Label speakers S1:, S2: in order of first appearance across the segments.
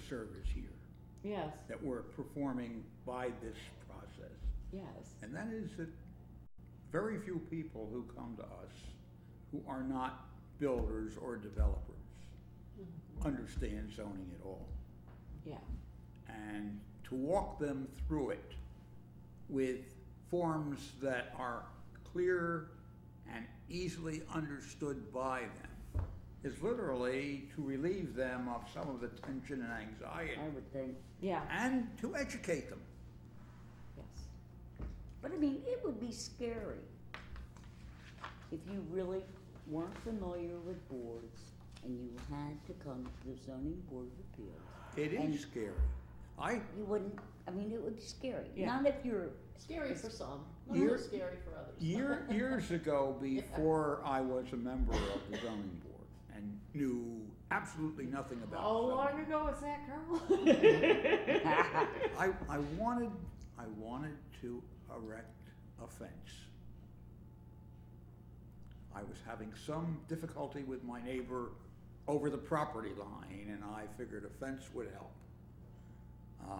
S1: service here
S2: Yes,
S1: that we're performing by this process.
S2: yes.
S1: And that is that very few people who come to us who are not builders or developers understand zoning at all.
S2: Yeah,
S1: And to walk them through it with forms that are clear and easily understood by them is literally to relieve them of some of the tension and anxiety
S3: I would think.
S2: yeah,
S1: and to educate them.
S2: yes.
S3: But I mean, it would be scary if you really weren't familiar with boards and you had to come to the zoning board of appeals.
S1: It
S3: And-
S1: is scary. I,
S3: You wouldn't, I mean, it would be scary.
S2: Yeah.
S3: Not if you're,
S4: Scary for some, not
S1: Year-
S4: so scary for others.
S1: Year, years ago, before I was a member of the zoning board and knew absolutely nothing about
S2: How long
S1: zoning,
S2: ago was that, Carl?
S1: I, I wanted, I wanted to erect a fence. I was having some difficulty with my neighbor over the property line, and I figured a fence would help. Uh,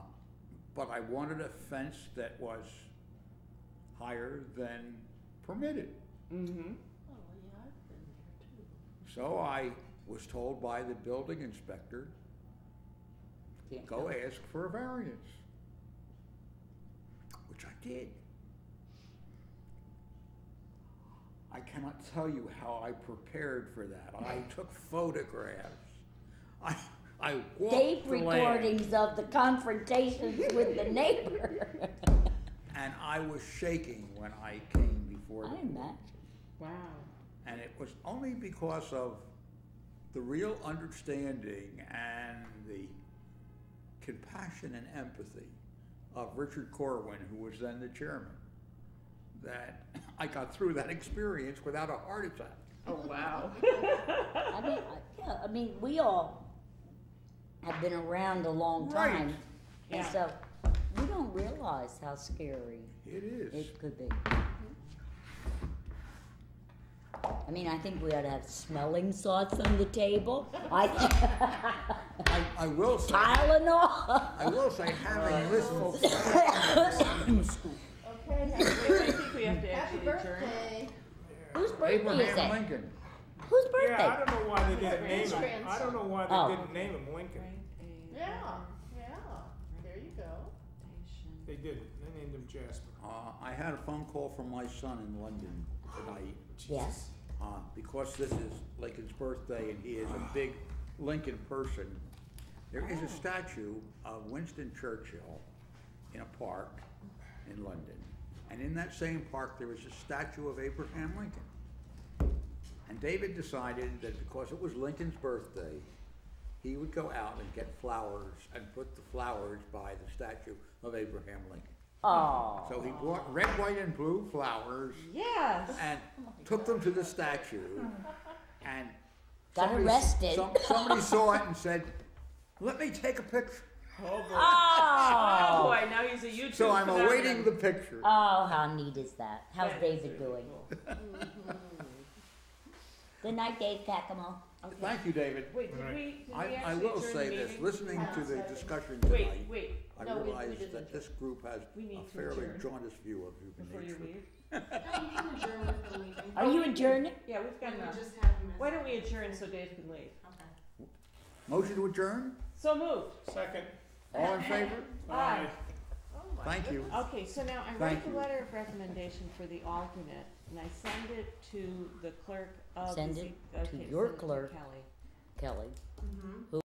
S1: But I wanted a fence that was higher than permitted.
S2: Mm-hmm.
S4: Oh, yeah, I've been there too.
S1: So I was told by the building inspector,
S3: can't
S1: go
S3: go.
S1: ask for a variance, which I did. I cannot tell you how I prepared for that. I took photographs. I, I walked
S3: Tape
S1: the land,
S3: recordings of the confrontations with the neighbor.
S1: and I was shaking when I came before
S3: I
S1: the
S3: imagine.
S2: Wow.
S1: And it was only because of the real understanding and the compassion and empathy of Richard Corwin, who was then the chairman, that I got through that experience without a heart attack.
S2: Oh, wow.
S3: I mean, I- yeah, I mean, we all have been around a long
S1: Right.
S3: time. And
S2: Yeah.
S3: so we don't realize how scary
S1: It is.
S3: it could be. I mean, I think we ought to have smelling salts on the table. I
S1: I, I will say,
S3: Tylenol.
S1: I will say, having listened,
S4: Okay,
S2: I think we have to
S4: happy
S2: actually adjourn.
S4: birthday.
S3: Whose birthday is
S5: Abraham
S3: it?
S1: Lincoln,
S3: Whose
S5: Yeah, I
S3: birthday?
S5: don't know why they didn't name
S4: His
S5: him. I
S4: grandson.
S5: don't know why
S3: Oh.
S5: they didn't name him Lincoln.
S4: Yeah, yeah, there you go.
S5: They didn't. They named him Jasper.
S1: uh, I had a phone call from my son in London tonight.
S3: Yes.
S1: Uh, because this is Lincoln's birthday and he is a big Lincoln person, there is a statue of Winston Churchill in a park in London. And in that same park, there is a statue of Abraham Lincoln. And David decided that because it was Lincoln's birthday, he would go out and get flowers and put the flowers by the statue of Abraham Lincoln.
S3: Oh.
S1: So he bought red, white, and blue flowers
S2: Yes.
S1: and took them to the statue and
S3: Got
S1: somebody-
S3: arrested.
S1: some- somebody saw it and said, "Let me take a picture."
S2: Oh,
S3: Oh.
S2: boy, now he's a YouTube.
S1: So I'm
S2: phenomenon.
S1: awaiting the picture.
S3: Oh, how neat is that? How's
S2: Yeah, it's
S3: David
S2: really
S3: doing?
S2: cool.
S3: Good night, Dave Pacamo. Okay.
S1: Thank you, David.
S2: Wait, did
S5: Right.
S2: we, did we
S1: I,
S2: actually
S1: I will
S2: adjourn
S1: say
S2: the
S1: this:
S2: meeting?
S1: listening to the
S4: Yeah.
S1: discussion
S2: Wait,
S1: tonight,
S2: wait,
S1: I
S4: No, we- we
S1: realize
S4: didn't
S1: that this group has
S2: We need
S1: a
S2: to
S1: fairly
S2: adjourn.
S1: jaundiced view of
S2: before
S1: human
S2: you
S1: nature.
S2: leave.
S4: No, you can adjourn with the meeting.
S3: Are you adjourning?
S2: Yeah, we've
S4: We
S2: got enough.
S4: just have a message.
S2: Why don't we adjourn so Dave can leave?
S4: Okay.
S1: Motion to adjourn.
S2: So moved.
S5: Second.
S1: All in favor?
S2: Aye.
S4: Oh my
S1: Thank you.
S2: Okay, so now I
S1: Thank
S2: write the
S1: you.
S2: letter of recommendation for the alternate, and I send it to the clerk of the.
S3: Send
S2: Z-
S3: it
S2: okay,
S3: to
S2: send
S3: your
S2: it
S3: clerk.
S2: Kelly.
S3: Kelly.